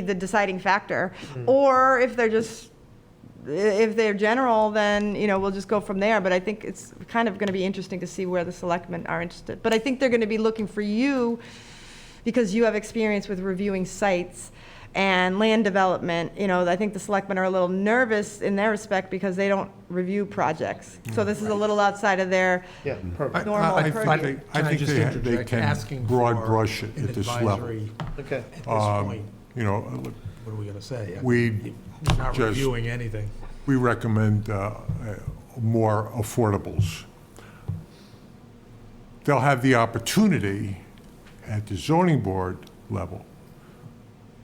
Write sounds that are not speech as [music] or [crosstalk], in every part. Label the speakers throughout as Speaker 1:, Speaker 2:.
Speaker 1: the deciding factor. Or if they're just, if they're general, then, you know, we'll just go from there. But I think it's kind of going to be interesting to see where the selectmen are interested. But I think they're going to be looking for you because you have experience with reviewing sites and land development. You know, I think the selectmen are a little nervous in their respect because they don't review projects. So this is a little outside of their,
Speaker 2: Yeah,
Speaker 3: I-
Speaker 2: perfect,
Speaker 1: normal
Speaker 3: I- I
Speaker 1: purview.
Speaker 3: think they- I
Speaker 4: Can I
Speaker 3: think
Speaker 4: just
Speaker 3: they ha- they
Speaker 4: interject?
Speaker 3: can
Speaker 4: Asking
Speaker 3: broad
Speaker 4: for
Speaker 3: brush it
Speaker 4: an
Speaker 3: at this level.
Speaker 4: advisory
Speaker 2: okay.
Speaker 4: At this
Speaker 3: Um,
Speaker 4: point,
Speaker 3: You know, look,
Speaker 4: what are we going to say?
Speaker 3: we
Speaker 4: We're Not
Speaker 3: just-
Speaker 4: reviewing anything.
Speaker 3: we recommend uh, uh, more affordables. They'll have the opportunity at the zoning board level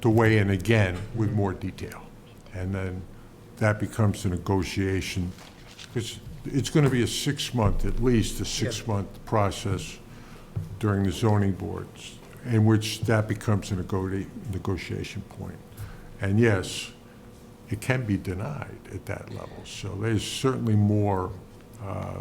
Speaker 3: to weigh in again with more detail. And then that becomes a negotiation. It's, it's going to be a six-month, at least a six-month process during the zoning boards, in which that becomes a negoti- negotiation point. And yes, it can be denied at that level. So there's certainly more uh,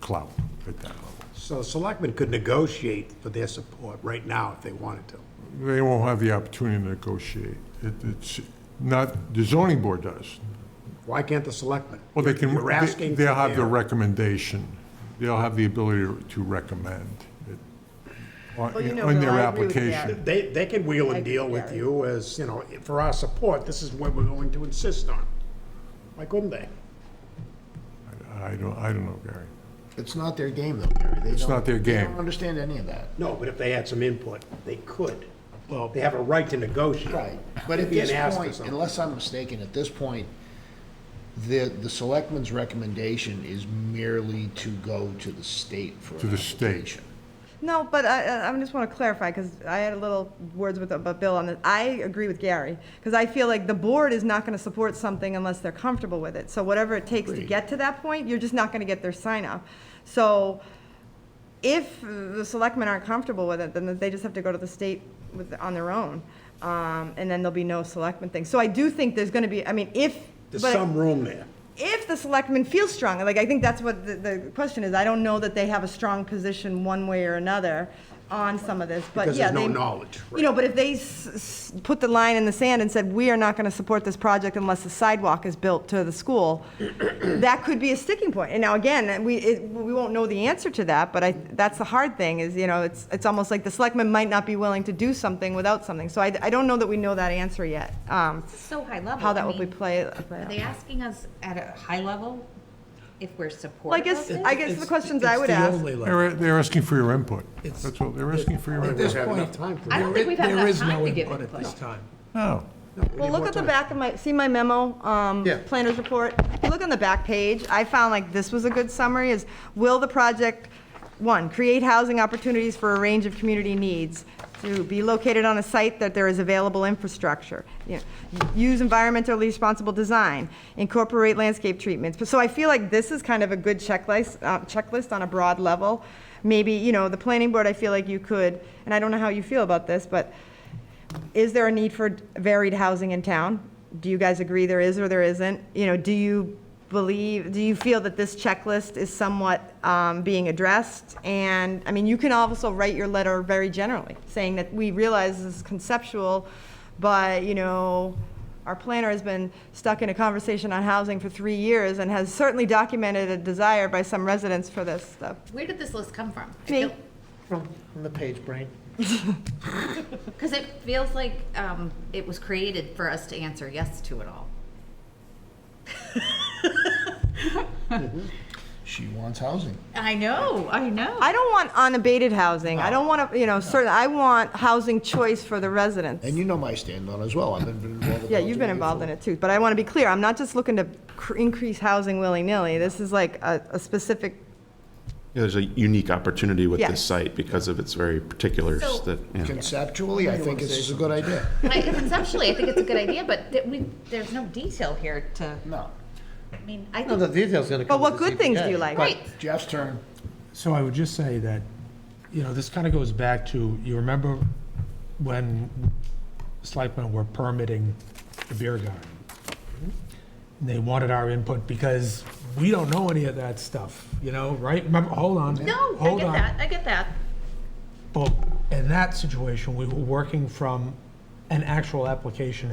Speaker 3: clout at that level.
Speaker 5: So selectmen could negotiate for their support right now if they wanted to.
Speaker 3: They won't have the opportunity to negotiate. It- It's not, the zoning board does.
Speaker 5: Why can't the selectmen?
Speaker 3: Well, they can,
Speaker 5: You're asking
Speaker 3: they'll
Speaker 5: for
Speaker 3: have the
Speaker 5: their-
Speaker 3: recommendation. They'll have the ability to recommend it on
Speaker 1: Well, you know,
Speaker 3: on
Speaker 1: Bill,
Speaker 3: their
Speaker 1: I agree with you there.
Speaker 3: application.
Speaker 5: They, they can wheel
Speaker 1: I-
Speaker 5: and deal with
Speaker 1: yeah.
Speaker 5: you as, you know, for our support, this is what we're going to insist on. Why couldn't they?
Speaker 3: I don't, I don't know, Gary.
Speaker 6: It's not their game, though, Gary. They
Speaker 3: It's
Speaker 6: don't-
Speaker 3: not their
Speaker 6: They
Speaker 3: game.
Speaker 6: don't understand any of that.
Speaker 5: No, but if they had some input, they could. Well, they have a right to negotiate.
Speaker 6: Right. But
Speaker 5: They're
Speaker 6: at
Speaker 5: being
Speaker 6: this
Speaker 5: asked for
Speaker 6: point,
Speaker 5: something.
Speaker 6: unless I'm mistaken, at this point, the, the selectman's recommendation is merely to go to the state for
Speaker 3: To
Speaker 6: an
Speaker 3: the state.
Speaker 6: application.
Speaker 1: No, but I, I I just want to clarify, because I had a little words with, about Bill on this. I agree with Gary, because I feel like the board is not going to support something unless they're comfortable with it. So whatever it takes to
Speaker 6: Agreed.
Speaker 1: get to that point, you're just not going to get their sign off. So if the selectmen aren't comfortable with it, then they just have to go to the state with, on their own. Um, and then there'll be no selectmen thing. So I do think there's going to be, I mean, if.
Speaker 5: There's
Speaker 1: but-
Speaker 5: some room there.
Speaker 1: if the selectmen feel strong, like, I think that's what the, the question is, I don't know that they have a strong position one way or another on some of this, but
Speaker 5: Because
Speaker 1: yeah.
Speaker 5: there's no
Speaker 1: they-
Speaker 5: knowledge,
Speaker 1: You know, but if they s- s- put the line in the sand and said, we are not gonna support this project unless the sidewalk is built to the
Speaker 5: [clears throat]
Speaker 1: school, that could be a sticking point. And now, again, we, it, we won't know the answer to that, but I, that's the hard thing, is, you know, it's, it's almost like the selectmen might not be willing to do something without something, so I, I don't know that we know that answer yet, um,
Speaker 7: so high level.
Speaker 1: how that
Speaker 7: I
Speaker 1: will be
Speaker 7: mean,
Speaker 1: play. play
Speaker 7: Are
Speaker 1: out.
Speaker 7: they asking us at a high level if we're
Speaker 1: Well, I
Speaker 7: supportive of
Speaker 1: guess,
Speaker 7: this?
Speaker 1: I guess the
Speaker 4: It's-
Speaker 1: questions I
Speaker 4: it's
Speaker 1: would
Speaker 4: the
Speaker 1: ask,
Speaker 4: only level.
Speaker 3: They're, they're asking for your input.
Speaker 4: It's-
Speaker 3: That's all, they're asking for your
Speaker 4: At this
Speaker 3: input.
Speaker 5: have enough
Speaker 4: point,
Speaker 5: time for
Speaker 4: there
Speaker 7: I don't think
Speaker 4: i-
Speaker 7: we've had
Speaker 4: there
Speaker 7: enough
Speaker 4: is
Speaker 7: time
Speaker 4: no
Speaker 7: to give
Speaker 4: input at
Speaker 7: input.
Speaker 4: this time.
Speaker 3: No.
Speaker 1: well, look at the back of my, see my memo, um,
Speaker 5: Yeah.
Speaker 1: planner's report? If you Look on the back page, I found like this was a good summary, is will the project, one, create housing opportunities for a range of community needs? Two, be located on a site that there is available infrastructure? You know, Use environmentally responsible design, incorporate landscape treatments. But So I feel like this is kind of a good checklist, uh, checklist on a broad level. Maybe, you know, the planning board, I feel like you could, and I don't know how you feel about this, but is there a need for varied housing in town? Do you guys agree there is or there isn't? You know, do you believe, do you feel that this checklist is somewhat um, being addressed? And, I mean, you can also write your letter very generally, saying that we realize this is conceptual, but, you know, our planner has been stuck in a conversation on housing for three years and has certainly documented a desire by some residents for this stuff.
Speaker 7: Where did this list come from?
Speaker 1: Me.
Speaker 8: From, from the page brain.
Speaker 7: Because it feels like um, it was created for us to answer yes to it all.
Speaker 6: She wants housing.
Speaker 7: I know, I know.
Speaker 1: I don't want unabated housing. I don't want to, you know, certain, I want housing choice for the residents.
Speaker 6: And you know my stand on it as well. I've been been involved with.
Speaker 1: Yeah, you've been involved in it too, but I want to be clear, I'm not just looking to cr- increase housing willy-nilly. This is like a, a specific,
Speaker 9: Yeah, There's a unique opportunity with
Speaker 1: Yes.
Speaker 9: this site because of its very particulars
Speaker 7: So-
Speaker 9: that, yeah.
Speaker 6: Conceptually, I think this is a good idea.
Speaker 7: I- Conceptually, I think it's a good idea, but th- we, there's no detail here to,
Speaker 6: No.
Speaker 7: I mean, I
Speaker 8: No, the
Speaker 7: think,
Speaker 8: detail's gonna
Speaker 1: but
Speaker 8: come.
Speaker 1: what
Speaker 8: with the
Speaker 1: good things do
Speaker 8: ZBA.
Speaker 1: you like?
Speaker 7: right,
Speaker 6: Jeff's turn.
Speaker 4: So I would just say that, you know, this kind of goes back to, you remember when selectmen were permitting the beer garden? And they wanted our input because we don't know any of that stuff, you know, right? Remember, hold on.
Speaker 7: no, I
Speaker 4: hold
Speaker 7: get
Speaker 4: on.
Speaker 7: that, I get that.
Speaker 4: But in that situation, we were working from an actual application